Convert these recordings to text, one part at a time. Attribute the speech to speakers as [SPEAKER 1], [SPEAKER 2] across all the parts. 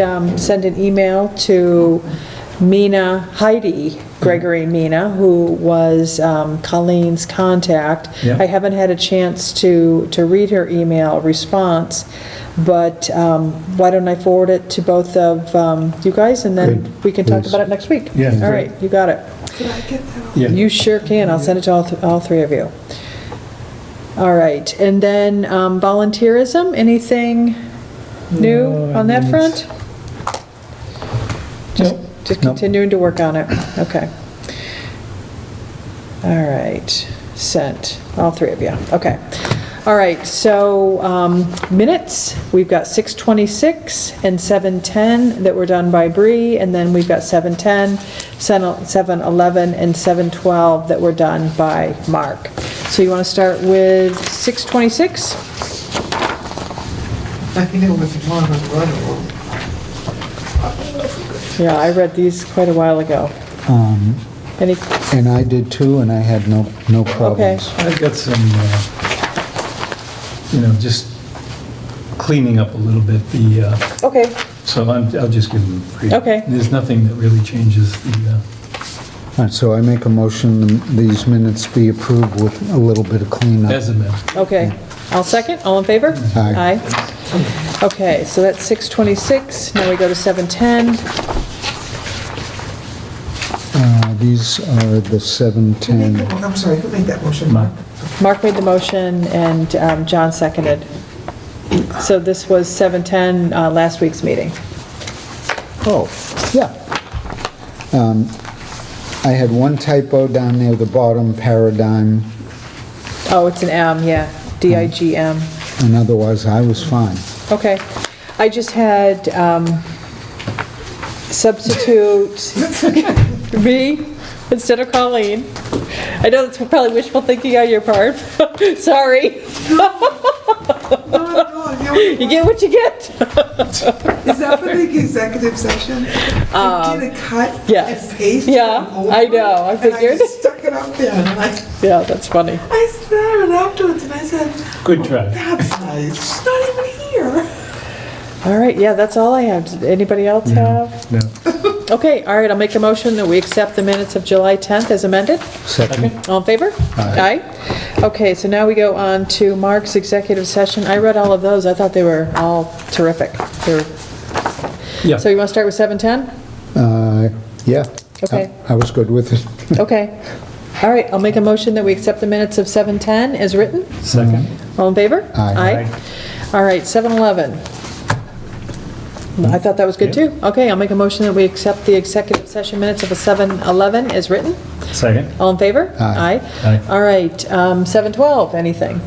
[SPEAKER 1] um, send an email to Mina Heidi Gregory Mina, who was um, Colleen's contact.
[SPEAKER 2] Yeah.
[SPEAKER 1] I haven't had a chance to, to read her email response, but um, why don't I forward it to both of um, you guys, and then
[SPEAKER 3] Good,
[SPEAKER 1] we can talk
[SPEAKER 3] please.
[SPEAKER 1] about it next week?
[SPEAKER 2] Yeah.
[SPEAKER 1] All right, you got it.
[SPEAKER 2] Yeah,
[SPEAKER 1] You sure can, I'll send it to all, th- all three of you. All right, and then um, volunteerism, anything new
[SPEAKER 2] No, I
[SPEAKER 1] on that
[SPEAKER 2] mean,
[SPEAKER 1] front? Just
[SPEAKER 2] Nope.
[SPEAKER 1] just
[SPEAKER 2] Nope.
[SPEAKER 1] continuing to work on it, okay. All right, sent, all three of you, okay. All right, so um, minutes, we've got 6:26 and 7:10 that were done by Bree, and then we've got 7:10, 7:11, and 7:12 that were done by Mark. So you want to start with 6:26?
[SPEAKER 4] I think it was one of the,
[SPEAKER 1] Yeah, I read these quite a while ago.
[SPEAKER 3] Um,
[SPEAKER 1] Any,
[SPEAKER 3] And I did too, and I had no, no problems.
[SPEAKER 2] I've got some, uh, you know, just cleaning up a little bit the, uh,
[SPEAKER 1] okay,
[SPEAKER 2] so I'm- I'll just give them. a read.
[SPEAKER 1] Okay.
[SPEAKER 2] There's nothing that really changes the, uh,
[SPEAKER 3] All right, so I make a motion, these minutes be approved with a little bit of cleanup.
[SPEAKER 2] as a matter.
[SPEAKER 1] Okay, I'll second, all in favor?
[SPEAKER 3] Aye.
[SPEAKER 1] Aye. Okay, so that's 6:26, now we go to 7:10.
[SPEAKER 3] Uh, These
[SPEAKER 4] who
[SPEAKER 3] are the
[SPEAKER 4] made that-
[SPEAKER 3] 710.
[SPEAKER 4] I'm sorry, who made that motion?
[SPEAKER 2] Mark.
[SPEAKER 1] Mark made the motion and um, John seconded. So this was 7:10, uh, last week's meeting.
[SPEAKER 3] Oh, yeah. Um, I had one typo down near the bottom, paradigm,
[SPEAKER 1] Oh, it's an M, yeah, D-I-G-M.
[SPEAKER 3] and otherwise I was fine.
[SPEAKER 1] Okay, I just had um, substitute me instead of Colleen. I know that's probably wishful thinking on your part, sorry.
[SPEAKER 4] No, no, you-
[SPEAKER 1] You get what you get.
[SPEAKER 4] Oh, Is that for the executive session? I did a cut
[SPEAKER 1] yes.
[SPEAKER 4] and paste.
[SPEAKER 1] Um, Yeah,
[SPEAKER 4] from
[SPEAKER 1] I
[SPEAKER 4] over,
[SPEAKER 1] know, I
[SPEAKER 4] And I
[SPEAKER 1] figured.
[SPEAKER 4] just stuck it up there, and I,
[SPEAKER 1] Yeah, that's funny.
[SPEAKER 4] I stared afterwards, and I said,
[SPEAKER 2] Good try.
[SPEAKER 4] that's nice, she's not even here.
[SPEAKER 1] All right, yeah, that's all I have. Does Anybody else have?
[SPEAKER 2] No.
[SPEAKER 1] Okay, all right, I'll make a motion that we accept the minutes of July 10th as amended.
[SPEAKER 3] Second,
[SPEAKER 1] All in favor?
[SPEAKER 3] Aye.
[SPEAKER 1] Aye. Okay, so now we go on to Mark's executive session. I read all of those. I thought they were all terrific. They were-
[SPEAKER 2] Yeah,
[SPEAKER 1] So you want to start with 7:10?
[SPEAKER 3] Uh, yeah.
[SPEAKER 1] Okay.
[SPEAKER 3] I I was good with it.
[SPEAKER 1] Okay. All right, I'll make a motion that we accept the minutes of 7:10 as written.
[SPEAKER 2] second.
[SPEAKER 1] All in favor?
[SPEAKER 3] Aye.
[SPEAKER 1] All right, 7-Eleven. I thought that was good, too. Okay, I'll make a motion that we accept the executive session minutes of a 7-Eleven as written.
[SPEAKER 2] Second.
[SPEAKER 1] All in favor?
[SPEAKER 3] Aye.
[SPEAKER 2] Aye.
[SPEAKER 1] All right, um, 7-12, anything?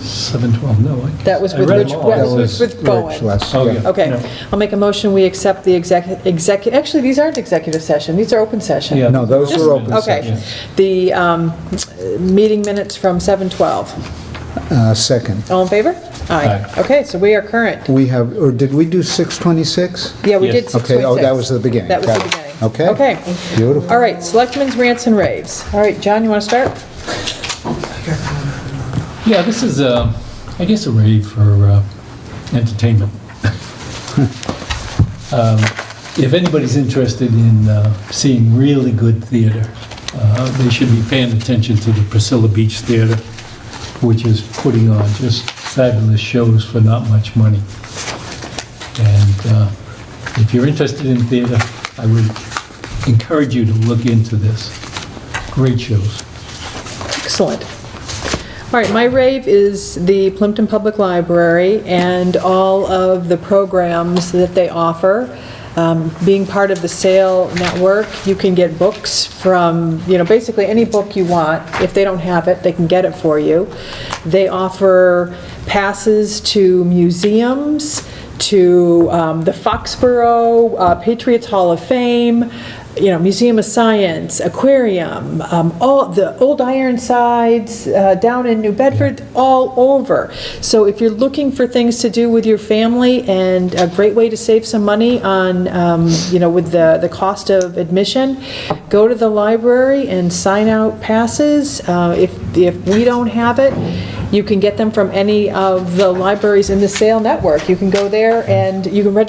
[SPEAKER 2] 712, no. I guess-
[SPEAKER 1] That was
[SPEAKER 2] I
[SPEAKER 1] with
[SPEAKER 2] read
[SPEAKER 1] Rich-
[SPEAKER 2] them all.
[SPEAKER 1] that
[SPEAKER 3] That
[SPEAKER 1] was
[SPEAKER 3] was
[SPEAKER 1] with Bowen.
[SPEAKER 3] Rich last-
[SPEAKER 2] Oh,
[SPEAKER 3] yeah.
[SPEAKER 2] yeah.
[SPEAKER 1] Okay,
[SPEAKER 2] No.
[SPEAKER 1] I'll make a motion, we accept the exec, execu, actually, these aren't executive session, these are open session.
[SPEAKER 2] Yeah.
[SPEAKER 3] No, those
[SPEAKER 1] Just-
[SPEAKER 3] were open
[SPEAKER 1] Okay,
[SPEAKER 3] session.
[SPEAKER 1] the um, meeting minutes from 7:12.
[SPEAKER 3] Uh, Second.
[SPEAKER 1] All in favor?
[SPEAKER 2] Aye.
[SPEAKER 1] Okay, so we are current.
[SPEAKER 3] We have, or did we do 626?
[SPEAKER 1] Yeah, we
[SPEAKER 2] Yes.
[SPEAKER 1] did 6.6.
[SPEAKER 3] Okay, oh, that was the beginning.
[SPEAKER 1] That was the
[SPEAKER 3] Got it.
[SPEAKER 1] beginning.
[SPEAKER 3] Okay.
[SPEAKER 1] Okay.
[SPEAKER 3] Beautiful.
[SPEAKER 1] All right, selectmen's rants and raves. All right, John, you want to start?
[SPEAKER 2] Yeah, this is, uh, I guess, a rave for uh, entertainment. Um, If anybody's interested in uh, seeing really good theater, uh, they should be paying attention to the Priscilla Beach Theater, which is putting on just fabulous shows for not much money. And uh, if you're interested in theater, I would encourage you to look into this. Great shows.
[SPEAKER 1] Excellent. All right, my rave is the Plimpton Public Library and all of the programs that they offer. Um, Being part of the SAIL network, you can get books from, you know, basically any book you want. If they don't have it, they can get it for you. They offer passes to museums, to um, the Foxborough uh, Patriots Hall of Fame, you know, Museum of Science, Aquarium, um, all, the Old Ironsides, uh, down in New Bedford, all over. So if you're looking for things to do with your family and a great way to save some money on, um, you know, with the, the cost of admission, go to the library and sign out passes. Uh, If, if we don't have it, you can get them from any of the libraries in the sale network. You can go there and you can register